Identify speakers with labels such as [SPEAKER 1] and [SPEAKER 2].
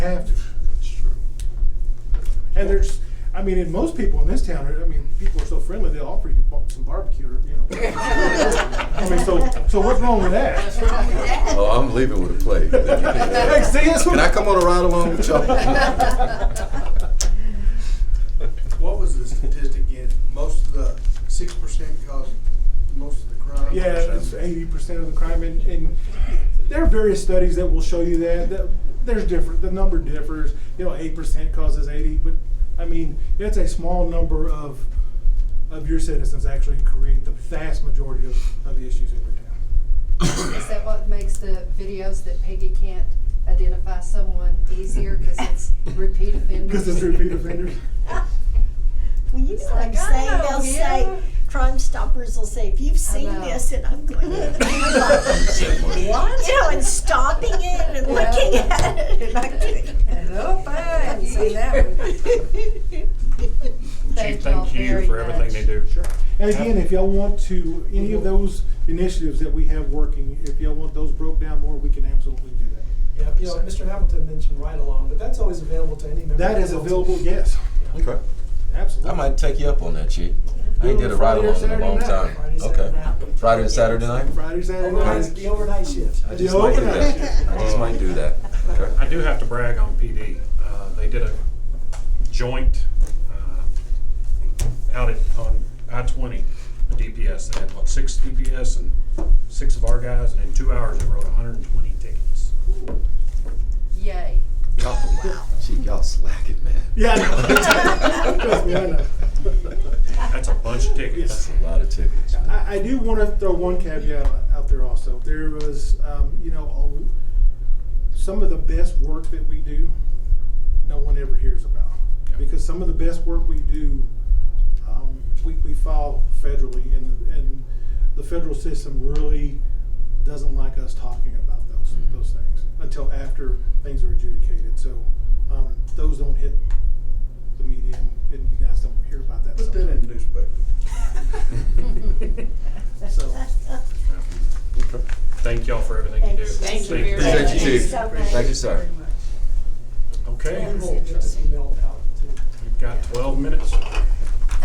[SPEAKER 1] And there's, I mean, and most people in this town, are- I mean, people are so friendly, they'll offer you bu- some barbecue or, you know. I mean, so, so what's wrong with that?
[SPEAKER 2] Oh, I'm leaving with a plate.
[SPEAKER 1] Hey, see, that's what-
[SPEAKER 2] Can I come on a ride along with y'all?
[SPEAKER 3] What was the statistic again? Most of the six percent caused most of the crime.
[SPEAKER 1] Yeah, it's eighty percent of the crime, and, and there are various studies that will show you that, that, there's different, the number differs. You know, eight percent causes eighty, but, I mean, it's a small number of, of your citizens actually create the vast majority of, of the issues in your town.
[SPEAKER 4] Is that what makes the videos that Peggy can't identify someone easier because it's repeat offenders?
[SPEAKER 1] Because it's repeat offenders.
[SPEAKER 5] Well, you know what I'm
[SPEAKER 4] like, I
[SPEAKER 5] saying?
[SPEAKER 4] know
[SPEAKER 5] They'll
[SPEAKER 4] him.
[SPEAKER 5] say, Crime Stoppers will say, if you've seen
[SPEAKER 4] know.
[SPEAKER 5] this, and I'm going, what? You know, and stopping it and
[SPEAKER 4] Yeah.
[SPEAKER 5] looking at it. And I can't-
[SPEAKER 4] Hello, fine, see that one.
[SPEAKER 6] Chief,
[SPEAKER 4] Thank y'all
[SPEAKER 6] thank you
[SPEAKER 4] very
[SPEAKER 6] for everything they
[SPEAKER 4] much.
[SPEAKER 6] do. Sure.
[SPEAKER 1] And again, if y'all want to, any of those initiatives that we have working, if y'all want those broke down more, we can absolutely do that.
[SPEAKER 7] Yeah, you know, Mr. Hamilton mentioned ride-along, but that's always available to any member.
[SPEAKER 1] That
[SPEAKER 7] of
[SPEAKER 1] is
[SPEAKER 7] the council.
[SPEAKER 1] available, yes,
[SPEAKER 2] Okay.
[SPEAKER 1] absolutely.
[SPEAKER 2] I might take you up on that, Chief. I ain't did a ride
[SPEAKER 1] Friday or
[SPEAKER 2] along in a
[SPEAKER 1] Saturday
[SPEAKER 2] long
[SPEAKER 1] night.
[SPEAKER 2] time.
[SPEAKER 7] Friday,
[SPEAKER 2] Okay.
[SPEAKER 7] Saturday night.
[SPEAKER 2] Friday and Saturday night?
[SPEAKER 1] Friday, Saturday
[SPEAKER 7] Overnight,
[SPEAKER 1] night.
[SPEAKER 7] the overnight shift.
[SPEAKER 2] I just might do that. I just might do that. Okay.
[SPEAKER 6] I do have to brag on PD. Uh, they did a joint uh, out at on I twenty DPS. They had what six DPS and six of our guys, and in two hours they wrote 120 tickets.
[SPEAKER 4] Yay.
[SPEAKER 2] Y'all, gee, y'all slacking, man.
[SPEAKER 1] Yeah, I know. Trust me, I know.
[SPEAKER 6] That's a bunch
[SPEAKER 1] Yes.
[SPEAKER 6] of tickets.
[SPEAKER 2] A lot of tickets.
[SPEAKER 1] I, I do want to throw one caveat out there also. There was, um, you know, a, some of the best work that we do, no one ever hears about.
[SPEAKER 6] Yeah.
[SPEAKER 1] Because some of the best work we do, um, we, we file federally, and, and the federal system really doesn't like us talking about those, those things until after things are adjudicated. So um, those don't hit the media, and, and you guys don't hear about that.
[SPEAKER 3] Put that in the newspaper.
[SPEAKER 1] So-
[SPEAKER 2] Okay.
[SPEAKER 6] Thank y'all for everything you do.
[SPEAKER 5] Thank
[SPEAKER 4] you very
[SPEAKER 2] Thank you,
[SPEAKER 4] much.
[SPEAKER 2] Chief.
[SPEAKER 5] so much.
[SPEAKER 2] Thank you, sir.
[SPEAKER 6] Okay,
[SPEAKER 7] And we'll get this emailed out too.
[SPEAKER 6] we've got 12 minutes.